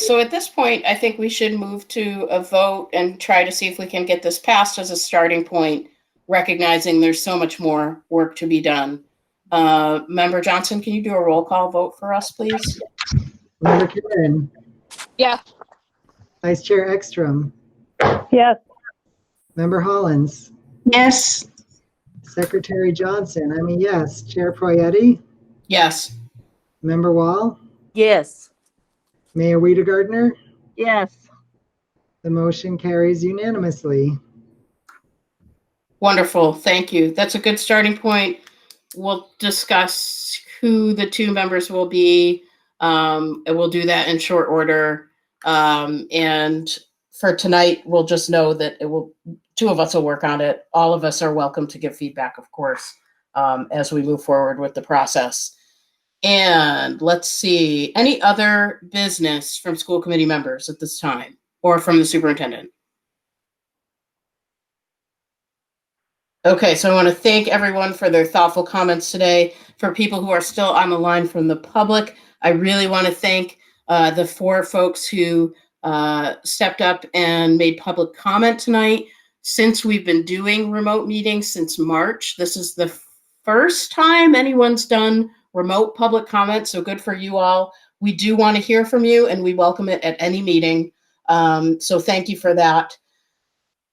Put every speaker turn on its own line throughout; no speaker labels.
so at this point, I think we should move to a vote and try to see if we can get this passed as a starting point, recognizing there's so much more work to be done. Uh, Member Johnson, can you do a roll call vote for us, please?
Member Karen.
Yeah.
Vice Chair Ekstrom.
Yes.
Member Hollins.
Yes.
Secretary Johnson, I'm a yes. Chair Poyetti.
Yes.
Member Wall.
Yes.
Mayor Weidergartner.
Yes.
The motion carries unanimously.
Wonderful. Thank you. That's a good starting point. We'll discuss who the two members will be. Um, and we'll do that in short order. Um, and for tonight, we'll just know that it will, two of us will work on it. All of us are welcome to give feedback, of course, um, as we move forward with the process. And let's see, any other business from school committee members at this time or from the superintendent? Okay, so I want to thank everyone for their thoughtful comments today. For people who are still on the line from the public, I really want to thank uh, the four folks who uh, stepped up and made public comment tonight. Since we've been doing remote meetings since March, this is the first time anyone's done remote public comment, so good for you all. We do want to hear from you, and we welcome it at any meeting. Um, so thank you for that.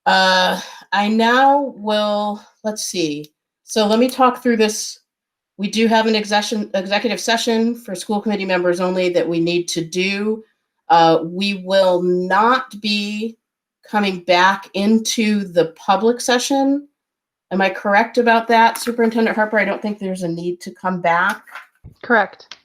Uh, I now will, let's see. So let me talk through this. We do have an executive, executive session for school committee members only that we need to do. Uh, we will not be coming back into the public session. Am I correct about that, Superintendent Harper? I don't think there's a need to come back.
Correct.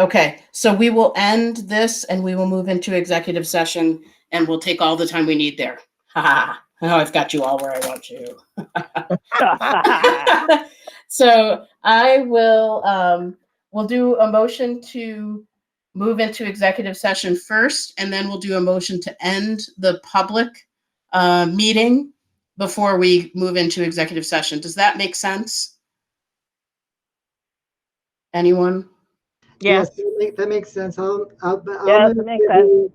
Okay, so we will end this and we will move into executive session and we'll take all the time we need there. Ha ha. Now I've got you all where I want you. so I will, um, we'll do a motion to move into executive session first, and then we'll do a motion to end the public, uh, meeting before we move into executive session. Does that make sense? Anyone?
Yes.
that make- That makes sense. I'll, I'll. I'll
Yes,
move
makes
that
sense.
we-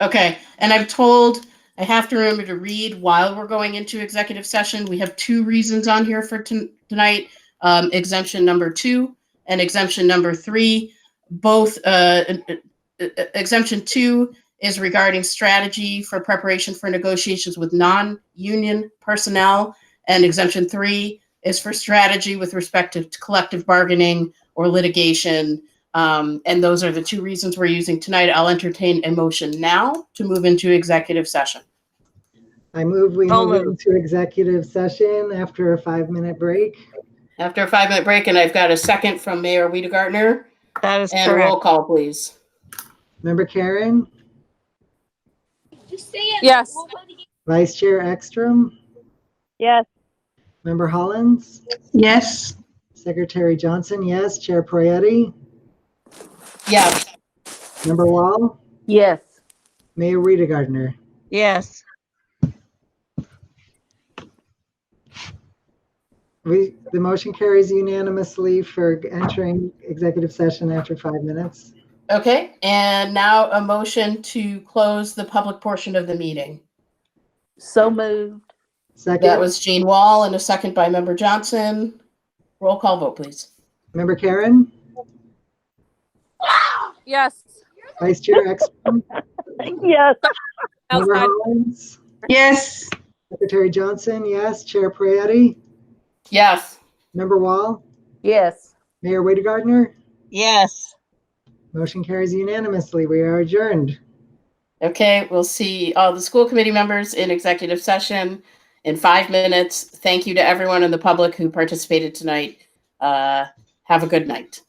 Okay, and I've told, I have to remember to read while we're going into executive session. We have two reasons on here for ton- tonight. Um, exemption number two and exemption number three, both, uh, uh, uh, exemption two is regarding strategy for preparation for negotiations with non-union personnel. And exemption three is for strategy with respect to collective bargaining or litigation. Um, and those are the two reasons we're using tonight. I'll entertain a motion now to move into executive session.
I move we
I'll
move
move.
into executive session after a five-minute break.
After a five minute break, and I've got a second from Mayor Weidergartner
That is
and roll
correct.
call, please.
Member Karen,
Yes.
Vice Chair Ekstrom,
Yes.
Member Hollins,
Yes.
Secretary Johnson, yes. Chair Poyetti,
Yes.
Member Wall,
Yes.
Mayor Weidergartner.
Yes.
We, the motion carries unanimously for entering executive session after five minutes.
Okay. And now a motion to close the public portion of the meeting.
So moved.
That
Second,
was Jean Wall and a second by Member Johnson. Roll call vote, please.
Member Karen,
Yes.
Vice Chair Ekstrom,
Yes.
Member
Outside.
Hollins,
Yes.
Secretary Johnson, yes. Chair Poyetti,
Yes.
Member Wall,
Yes.
Mayor Weidergartner.
Yes.
Motion carries unanimously. We are adjourned.
Okay, we'll see all the school committee members in executive session in five minutes. Thank you to everyone in the public who participated tonight. Uh, have a good night.